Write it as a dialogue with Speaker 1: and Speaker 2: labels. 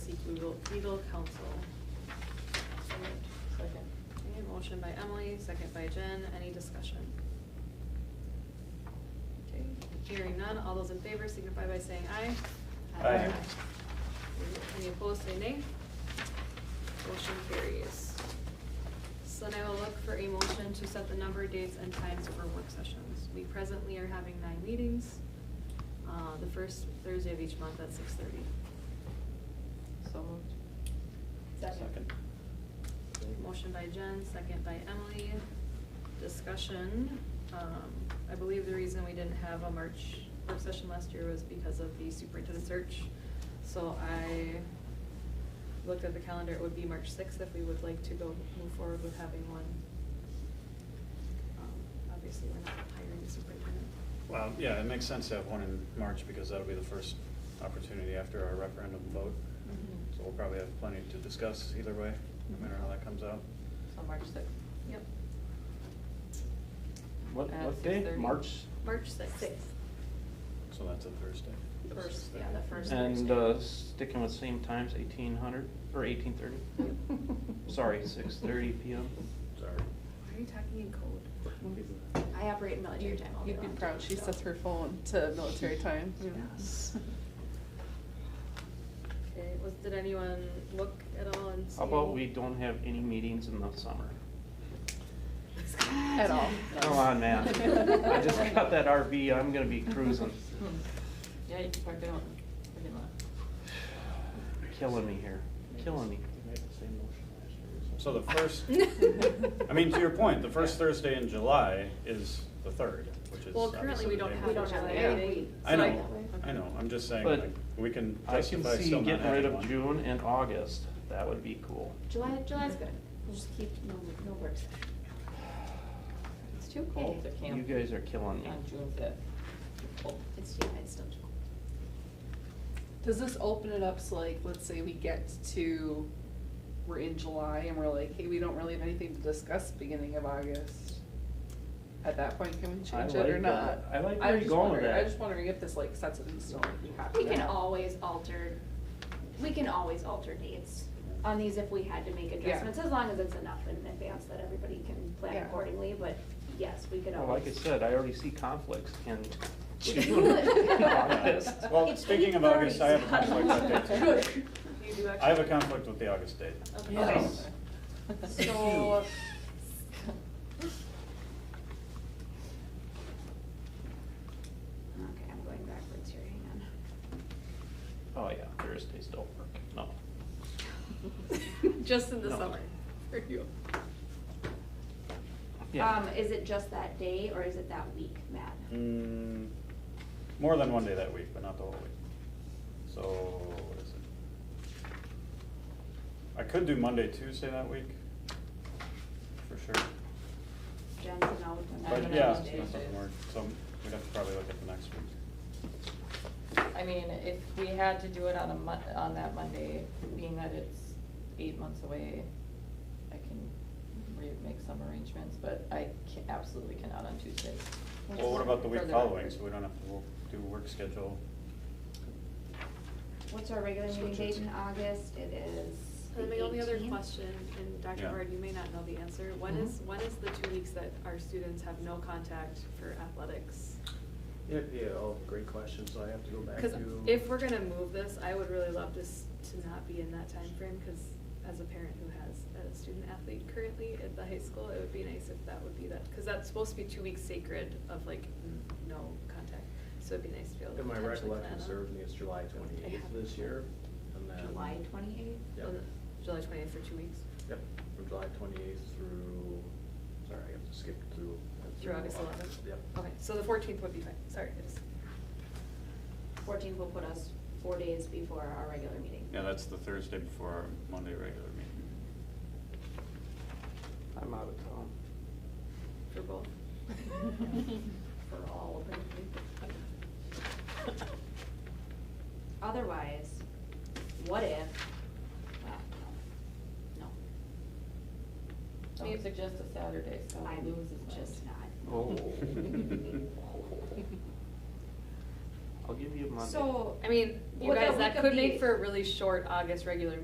Speaker 1: legal, legal counsel. So moved.
Speaker 2: Second.
Speaker 1: Okay, motion by Emily, second by Jen, any discussion? Okay, hearing none, all those in favor signify by saying aye.
Speaker 2: Aye. Aye.
Speaker 1: Any opposed, say nay. Motion carries. So now we'll look for a motion to set the number, dates, and times for work sessions. We presently are having nine meetings, uh, the first Thursday of each month at six thirty.
Speaker 2: So moved.
Speaker 3: Second.
Speaker 1: Motion by Jen, second by Emily. Discussion. Um, I believe the reason we didn't have a March work session last year was because of the superintendent search. So I looked at the calendar, it would be March sixth if we would like to go move forward with having one. Um, Obviously, we're not hiring a superintendent.
Speaker 3: Well, yeah, it makes sense to have one in March because that'll be the first opportunity after our referendum vote.
Speaker 4: Mm-hmm.
Speaker 2: Mhm.
Speaker 3: So we'll probably have plenty to discuss either way, no matter how that comes out.
Speaker 2: So March sixth.
Speaker 1: Yep,
Speaker 5: What,
Speaker 2: At
Speaker 5: what day?
Speaker 2: 6:30.
Speaker 5: March?
Speaker 1: March sixth.
Speaker 3: So that's a Thursday. That's
Speaker 1: First,
Speaker 3: Thursday.
Speaker 1: yeah, the first
Speaker 5: And
Speaker 1: Thursday.
Speaker 5: uh, sticking with same times, eighteen hundred, or eighteen thirty? Sorry, six thirty PM.
Speaker 3: Sorry.
Speaker 1: Why are you talking in code?
Speaker 4: I operate in military time all day
Speaker 2: You'd be
Speaker 4: long,
Speaker 2: proud, she
Speaker 4: so.
Speaker 2: sets her phone to military time.
Speaker 1: Yes. Okay, was, did anyone look at all and see?
Speaker 5: How about we don't have any meetings in the summer?
Speaker 2: At all.
Speaker 5: Come on, man. I just got that RV, I'm gonna be cruising,
Speaker 6: Hmm.
Speaker 2: Yeah, you can park it on, parking lot.
Speaker 5: killing me here, killing me.
Speaker 3: So the first, I mean, to your point, the first Thursday in July is the third, which is.
Speaker 1: Well, currently,
Speaker 3: obviously
Speaker 1: we
Speaker 3: the
Speaker 1: don't
Speaker 3: day
Speaker 1: have.
Speaker 4: We
Speaker 1: a
Speaker 3: before.
Speaker 4: don't have
Speaker 1: July
Speaker 2: a
Speaker 1: meeting,
Speaker 3: I
Speaker 1: so
Speaker 3: know, I know, I'm just saying,
Speaker 5: But
Speaker 3: like, we can
Speaker 5: I can
Speaker 3: justify
Speaker 5: see
Speaker 3: still not
Speaker 5: getting rid
Speaker 3: having
Speaker 5: of
Speaker 3: one.
Speaker 5: June and August, that would be cool.
Speaker 4: July, July's good. We'll just keep, no, no work session. It's too
Speaker 2: Cold
Speaker 4: cold.
Speaker 2: to camp.
Speaker 5: You guys are killing me.
Speaker 2: On June fifth.
Speaker 4: It's too, it's still too cold.
Speaker 6: Does this open it up so like, let's say we get to, we're in July and we're like, hey, we don't really have anything to discuss beginning of August? At that point, can we change it or
Speaker 5: like
Speaker 6: not?
Speaker 5: that. I like
Speaker 6: I'm
Speaker 5: where you're
Speaker 6: just
Speaker 5: going with
Speaker 6: wondering-
Speaker 5: that.
Speaker 6: I'm just wondering if this like sets it in stone, if you have to.
Speaker 4: We can
Speaker 6: have-
Speaker 4: always alter, we can always alter dates on these if we had to make adjustments, as long as it's enough in advance that everybody can plan
Speaker 6: Yeah.
Speaker 4: accordingly, but yes, we could
Speaker 5: Well, like I
Speaker 4: always.
Speaker 5: said, I already see conflicts in
Speaker 4: We
Speaker 5: June
Speaker 4: could.
Speaker 5: and August.
Speaker 3: Well,
Speaker 4: It's
Speaker 3: speaking of August, I have a
Speaker 4: 8:30.
Speaker 3: conflict that day.
Speaker 1: You do actually.
Speaker 3: I have a conflict with the August date.
Speaker 1: Okay.
Speaker 5: Yes.
Speaker 1: Um,
Speaker 2: So.
Speaker 4: Okay, I'm going backwards here, hang
Speaker 5: Oh, yeah, Thursdays don't work, no.
Speaker 1: Just in the
Speaker 5: No.
Speaker 1: summer.
Speaker 6: For you.
Speaker 5: Yeah.
Speaker 4: on. Um, is it just that day or is it that week, Matt?
Speaker 3: Mm, more than one day that week, but not the whole week. So, what is it? I could do Monday, Tuesday that week, for sure.
Speaker 4: Jen's an out.
Speaker 2: I
Speaker 3: But
Speaker 2: don't know
Speaker 3: yeah,
Speaker 2: those
Speaker 3: it's not
Speaker 2: days.
Speaker 3: something we're- so we'd have to probably look at the next week.
Speaker 2: I mean, if we had to do it on a Mon- on that Monday, being that it's eight months away, I can re- make some arrangements, but I ca- absolutely cannot on Tuesdays.
Speaker 3: Well, what about the week
Speaker 2: Further
Speaker 3: following,
Speaker 2: record.
Speaker 3: so we don't have to wo- do work schedule?
Speaker 4: What's our regular meeting
Speaker 3: Switch it.
Speaker 4: date in August? It is
Speaker 1: And my only other
Speaker 4: 18th.
Speaker 1: question, and Dr.
Speaker 3: Yeah.
Speaker 1: Bard, you may not know the answer, when is,
Speaker 2: Mhm.
Speaker 1: when is the two weeks that our students have no contact for athletics?
Speaker 7: Yeah, yeah, oh, great question, so I have to go back to.
Speaker 1: Cause if we're gonna move this, I would really love this to not be in that time frame. cause as a parent who has a student athlete currently at the high school, it would be nice if that would be that, cause that's supposed to be two weeks sacred of like, n- no contact, so it'd be nice to be able to
Speaker 7: If my
Speaker 1: potentially plan
Speaker 7: recollection
Speaker 1: on-
Speaker 7: serves me, it's July twenty-eighth this year, and
Speaker 1: um,
Speaker 7: then.
Speaker 4: July twenty-eighth?
Speaker 7: Yep,
Speaker 1: on July twentieth for two weeks,
Speaker 7: yep, from July twenty-eighth through, sorry, I have to skip through.
Speaker 1: through August eleventh?
Speaker 7: Yep.
Speaker 1: Okay, so the fourteenth would be fine, sorry, I just-
Speaker 4: Fourteenth will put us four days before our regular meeting.
Speaker 3: Yeah, that's the Thursday before our Monday regular meeting.
Speaker 5: I'm out of town.
Speaker 1: for both.
Speaker 4: For all open meetings. Otherwise, what if, well, no,
Speaker 2: Don't suggest a Saturday, so
Speaker 4: no, I
Speaker 2: we lose
Speaker 4: was
Speaker 2: his mind.
Speaker 4: just not.
Speaker 5: Oh. I'll give you Monday.
Speaker 4: So.
Speaker 1: I mean, you
Speaker 4: Would
Speaker 1: guys,
Speaker 4: that
Speaker 1: that
Speaker 4: week
Speaker 1: could
Speaker 4: of the-
Speaker 1: make for a really short August regular